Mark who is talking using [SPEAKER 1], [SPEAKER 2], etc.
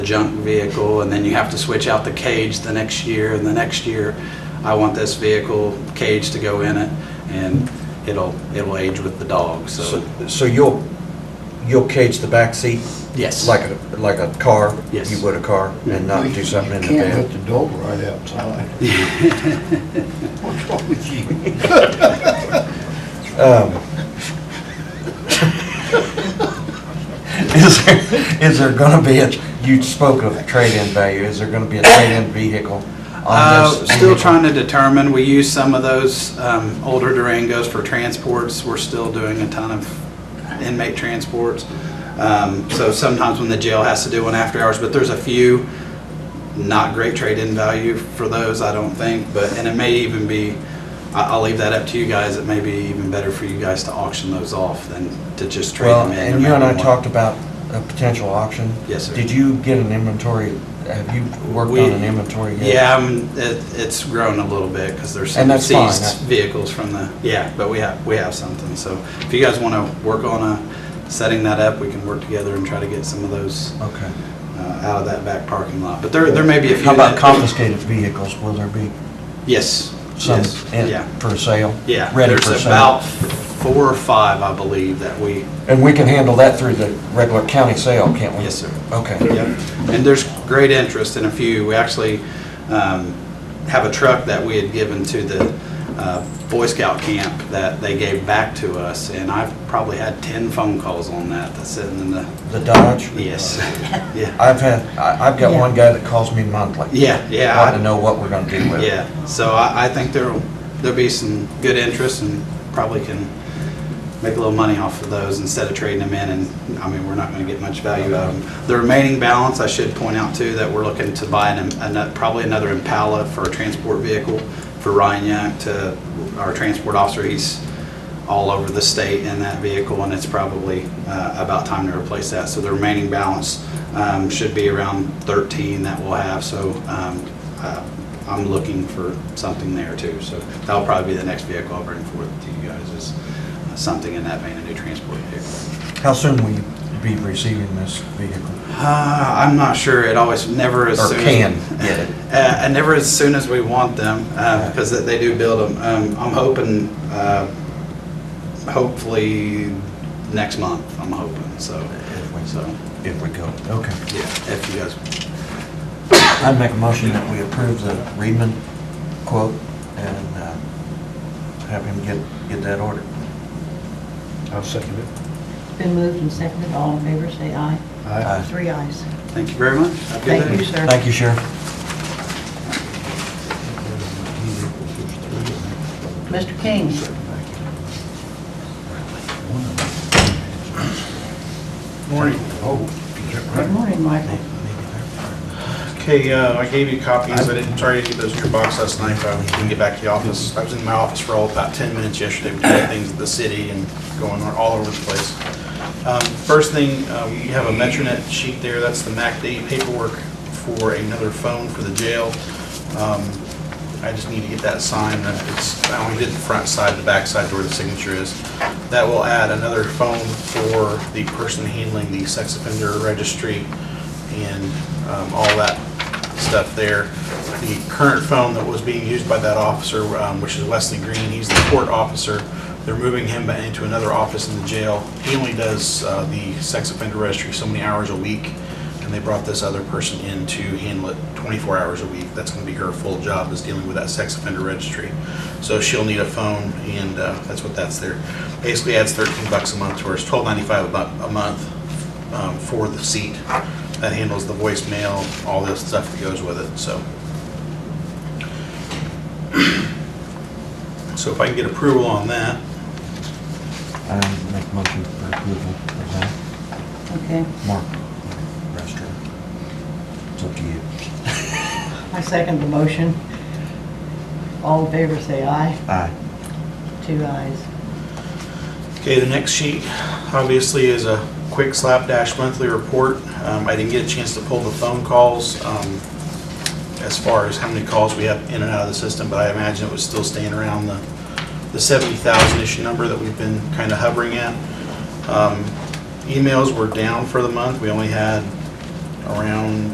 [SPEAKER 1] the junk vehicle, and then you have to switch out the cage the next year, and the next year, I want this vehicle cage to go in it, and it'll, it'll age with the dog, so,
[SPEAKER 2] So so you'll, you'll cage the back seat
[SPEAKER 1] yes.
[SPEAKER 2] like a, like a car?
[SPEAKER 1] Yes.
[SPEAKER 2] You would a car and not do something in the
[SPEAKER 3] You can't
[SPEAKER 2] van?
[SPEAKER 3] put the dog right outside. What's wrong with you?
[SPEAKER 2] Is there, is there gonna be a, you spoke of trade-in value, is there gonna be a trade-in vehicle on
[SPEAKER 1] Uh,
[SPEAKER 2] this?
[SPEAKER 1] Still trying to determine, we use some of those um, older Durangos for transports, we're still doing a ton of inmate transports. Um, So sometimes when the jail has to do one after hours, but there's a few, not great trade-in value for those, I don't think, but, and it may even be, I- I'll leave that up to you guys, it may be even better for you guys to auction those off than to just trade
[SPEAKER 2] Well,
[SPEAKER 1] them in. no
[SPEAKER 2] and you and I
[SPEAKER 1] matter what.
[SPEAKER 2] talked about a potential auction.
[SPEAKER 1] Yes, sir.
[SPEAKER 2] Did you get an inventory, have you worked on
[SPEAKER 1] We-
[SPEAKER 2] an inventory yet?
[SPEAKER 1] Yeah, um, it, it's grown a little bit because there's some
[SPEAKER 2] And that's fine,
[SPEAKER 1] seized
[SPEAKER 2] that-
[SPEAKER 1] vehicles from the, yeah, but we have, we have something. So if you guys want to work on uh, setting that up, we can work together and try to get some of those uh,
[SPEAKER 2] Okay.
[SPEAKER 1] out of that back parking lot. But there, there may be a few.
[SPEAKER 2] How about
[SPEAKER 1] that-
[SPEAKER 2] confiscated vehicles, will there be
[SPEAKER 1] Yes,
[SPEAKER 2] some
[SPEAKER 1] yes,
[SPEAKER 2] in-
[SPEAKER 1] yeah,
[SPEAKER 2] for sale?
[SPEAKER 1] yeah.
[SPEAKER 2] Ready for sale?
[SPEAKER 1] There's about four or five, I believe, that we,
[SPEAKER 2] And we can handle that through the regular county sale, can't we?
[SPEAKER 1] yes, sir.
[SPEAKER 2] Okay.
[SPEAKER 1] Yep, and there's great interest in a few. We actually um, have a truck that we had given to the uh, Boy Scout camp that they gave back to us, and I've probably had 10 phone calls on that, that's sitting in the,
[SPEAKER 2] The Dodge?
[SPEAKER 1] yes, yeah,
[SPEAKER 2] I've had, I- I've got one guy that calls me monthly.
[SPEAKER 1] yeah,
[SPEAKER 2] Wanting to
[SPEAKER 1] yeah,
[SPEAKER 2] know what we're gonna do
[SPEAKER 1] I-
[SPEAKER 2] with it.
[SPEAKER 1] yeah. So I I think there'll, there'll be some good interest and probably can make a little money off of those instead of trading them in, and, I mean, we're not gonna get much value out of them. The remaining balance, I should point out too, that we're looking to buy an, an- probably another Impala for a transport vehicle for Ryan Young to, our transport officer, he's all over the state in that vehicle, and it's probably uh, about time to replace that. So the remaining balance um, should be around 13 that we'll have, so um, uh, I'm looking for something there too. So that'll probably be the next vehicle I'll bring forth to you guys, is something in that van, a new transport vehicle.
[SPEAKER 2] How soon will you be receiving this vehicle?
[SPEAKER 1] Uh, I'm not sure, it always, never as
[SPEAKER 2] Or
[SPEAKER 1] soon. as-
[SPEAKER 2] can get it?
[SPEAKER 1] Uh, and never as soon as we want them, uh, because they- they do build them. Um, I'm hoping, uh, hopefully next month, I'm hoping, so,
[SPEAKER 2] If we-
[SPEAKER 1] so,
[SPEAKER 2] If we go, okay.
[SPEAKER 1] yeah, if you guys,
[SPEAKER 2] I'd make a motion that we approve the Reedman quote and uh, have him get, get that ordered.
[SPEAKER 3] I'll second it.
[SPEAKER 4] Been moved and seconded, all in favor, say aye.
[SPEAKER 2] Aye.
[SPEAKER 4] Three ayes.
[SPEAKER 1] thank you very much. Have a good
[SPEAKER 4] Thank
[SPEAKER 1] day.
[SPEAKER 4] you, sir.
[SPEAKER 2] Thank you, Sheriff.
[SPEAKER 4] Mr. King.
[SPEAKER 5] Morning.
[SPEAKER 3] Oh,
[SPEAKER 4] Good morning, Michael.
[SPEAKER 5] Okay, uh, I gave you copies. I didn't try to get those in your box last night, but I didn't get back to the office. I was in my office for all about 10 minutes yesterday, doing things at the city and going on all over the place. Um, First thing, uh, you have a Metronet sheet there. That's the MACD paperwork for another phone for the jail. Um, I just need to get that signed. Uh, It's, I only did the front side, the back side where the signature is. That will add another phone for the person handling the sex offender registry and um, all that stuff there. The current phone that was being used by that officer, um, which is Wesley Green, he's the court officer. They're moving him ba- into another office in the jail. He only does uh, the sex offender registry so many hours a week, and they brought this other person in to handle it 24 hours a week. That's going to be her full job is dealing with that sex offender registry. So she'll need a phone, and uh, that's what that's there. Basically adds 13 bucks a month to her. It's 12.95 a bu- a month um, for the seat that handles the voicemail, all this stuff that goes with it, so. So if I can get approval on that,
[SPEAKER 2] I make a motion for approval of that.
[SPEAKER 4] Okay,
[SPEAKER 2] Mark, restroom. It's up to you.
[SPEAKER 4] I second the motion. All in favor, say aye.
[SPEAKER 2] Aye.
[SPEAKER 4] Two ayes.
[SPEAKER 5] Okay, the next sheet, obviously, is a quick slapdash monthly report. Um, I didn't get a chance to pull the phone calls um, as far as how many calls we have in and out of the system, but I imagine it was still staying around the the 70,000-ish number that we've been kind of hovering at. Um, Emails were down for the month. We only had around